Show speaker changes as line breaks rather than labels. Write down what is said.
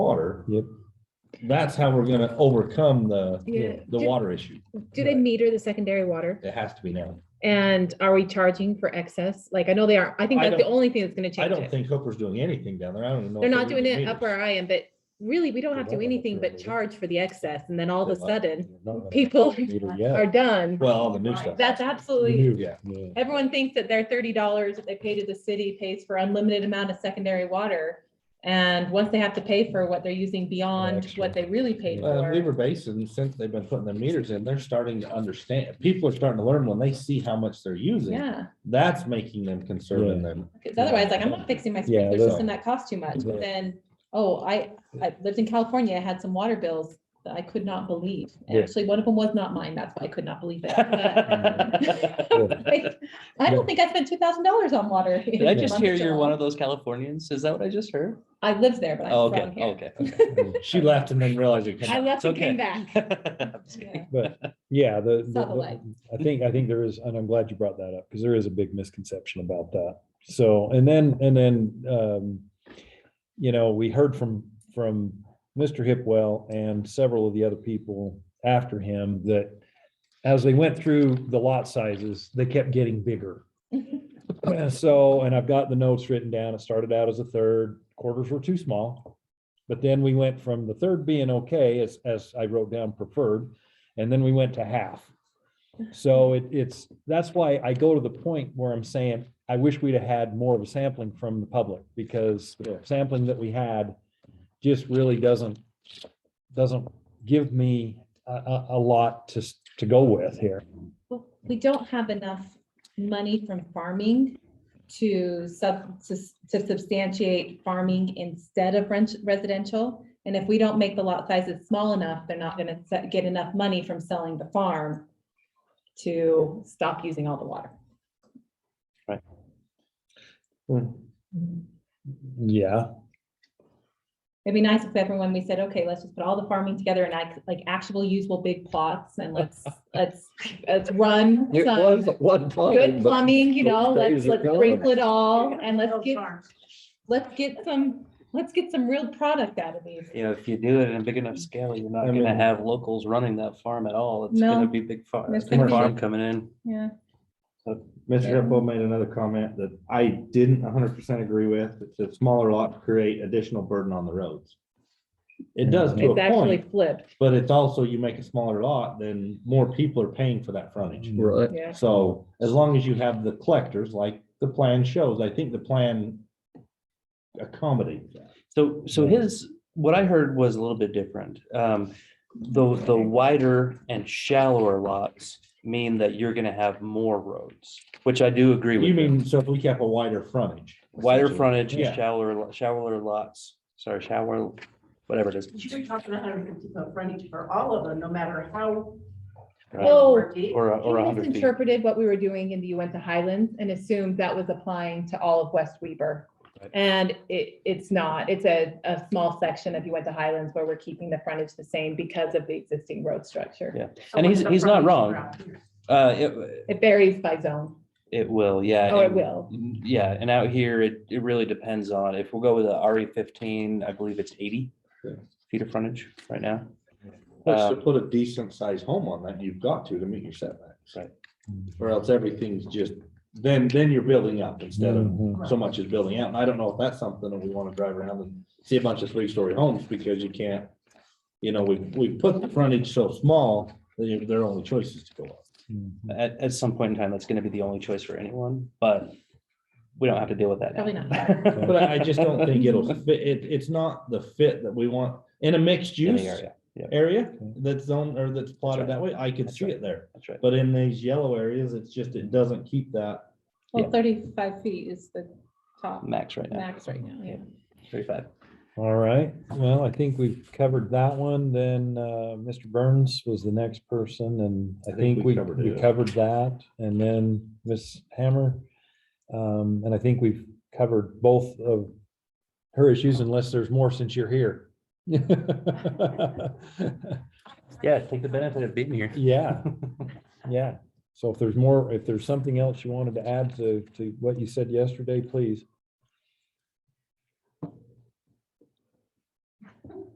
water.
Yep.
That's how we're gonna overcome the,
Yeah.
the water issue.
Do they
Right.
meter the secondary water?
It has to be now.
And are we charging for excess? Like, I know they are, I think
I
that's the
don't-
only thing that's gonna
I
change
don't
it.
think Hooper's doing anything down there. I don't even know.
They're
if
not
they're
doing
using
it up
meters.
where I am, but really, we don't
They
have to
don't
do
have
anything
to,
but
really.
charge for the excess, and then all of a
They like-
sudden,
Not gonna
people
meet her yet.
are done.
Well, all the new stuff.
That's absolutely,
New,
Yeah.
everyone thinks that their thirty dollars that they pay to the city pays for unlimited amount of secondary water. And once they have to pay for what they're using beyond
Extra.
what they really paid
Uh,
for.
Weaver Basin, since they've been putting the meters in, they're starting to understand. People are starting to learn when they see how much they're using.
Yeah,
That's making them concerned and then
because otherwise, like, I'm not fixing my sprinkler
that's-
system, that costs too much,
Right.
but then, oh, I, I lived in California, I had some water bills that I could not believe. And
Yeah.
Actually, one of them was not mine, that's why I could not believe it. But,
Did
Mm.
like, I don't think I spent two thousand dollars on water.
I just hear you're one of those Californians? Is that what I just heard?
I lived there, but
Oh,
I'm
Okay,
from here.
okay. okay.
she left and then realized it.
I left
It's
and came
okay.
back.
I'm just kidding.
Yeah.
But yeah, the, the-
Subtle
the- I think, I think there is, and I'm glad you brought that up because there is a big misconception about that. So, and then, and then, um, you know, we heard from, from Mr. Hipwell and several of the other people after him that as they went through the lot sizes, they kept getting bigger. So, and I've got the notes written down. It started out as a third, quarters were too small. But then we went from the third being okay, as, as I wrote down preferred, and then we went to half. So it, it's, that's why I go to the point where I'm saying, I wish we'd have had more of a sampling from the public, because the sampling that we had just really doesn't, doesn't give me a, a, a lot to, s- to go with here.
Well, We don't have enough money from farming to sub, to s- to substantiate farming instead of ren- residential. And if we don't make the lot sizes small enough, they're not gonna se- get enough money from selling the farm to stop using all the water.
Hmm.
Yeah,
It'd be nice if everyone, we said, okay, let's just put all the farming together and like, like actual usable big plots and let's, let's, let's run
It
some
was one
good
plumbing, but
plumbing, you know,
those
let's,
days are
let's
gone.
sprinkle it all
You're gonna
and let's
build
get,
farms.
let's get some, let's get some real product out of these.
You know, if you do it in a big enough scale, you're not
I
gonna
mean-
have locals running that farm at all. It's gonna
No.
be big farm,
That's
big
gonna be
farm
big.
coming in.
Yeah.
Mr. Hippo made another comment that I didn't hundred percent agree with. It's a smaller lot to create additional burden on the roads. It does to
It's
a
actually
point,
flipped.
but it's also you make a smaller lot, then more people are paying for that frontage.
Mm-hmm.
right,
Yeah.
So as long as you have the collectors, like the plan shows, I think the plan accommodates that.
So, so his, what I heard was a little bit different. Um, the, the wider and shallower lots mean that you're gonna have more roads, which I do agree with.
You
him.
mean, so if we kept a wider frontage.
Wider
essentially.
frontage, and
Yeah.
shallower, lo- shallower lots, sorry, shallower, whatever it is.
You were talking hundred fifty foot frontage for all of them, no matter how.
right?
Oh.
or deep.
Or, a- or a
He
hundred feet.
misinterpreted what we were doing in the Uinta Highlands and assumed that was applying to all of West Weber.
Right.
And it, it's not. It's a, a small section of Uinta Highlands where we're keeping the frontage the same because of the existing road structure.
Yeah.
So
and
what's
he's-
the
he's not
frontage
wrong.
around here?
Uh, it,
It varies by zone,
it will, yeah.
or Oh, it
and-
will.
Yeah, and out here, it, it really depends on, if we'll go with a RE fifteen, I believe it's eighty
Yeah.
feet of frontage right now.
Well, to
Um,
put a decent sized home on that, you've got to to meet your setbacks.
Right.
Mm-hmm.
Or else everything's just, then, then you're building up instead of
Mhm.
so much is building out. And I don't know if that's something that we want to drive around and see a bunch of three story homes because you can't. You know, we, we put the frontage so small, that you- their only choice is to go up.
Mhm.
At, at some point in time, that's gonna be the only choice for anyone, but we don't have to deal with that. now.
Probably not.
But I I just don't think it'll fit. It, it's not the fit that we want in a mixed
In the
use
area,
area that's zoned or that's plotted that way. I could
That's
see
right.
it there.
that's right.
But in these yellow areas, it's just, it doesn't keep that
Well,
Yeah.
thirty-five feet is the top
Max right now,
max right now, yeah.
thirty-five.
All right, well, I think we've covered that one, then, uh, Mr. Burns was the next person, and I think we,
covered
we
it.
covered that, and then Ms. Hammer. Um, and I think we've covered both of her issues unless there's more since you're here.
Yeah, take the benefit of being here.
Yeah, yeah, so if there's more, if there's something else you wanted to add to, to what you said yesterday, please.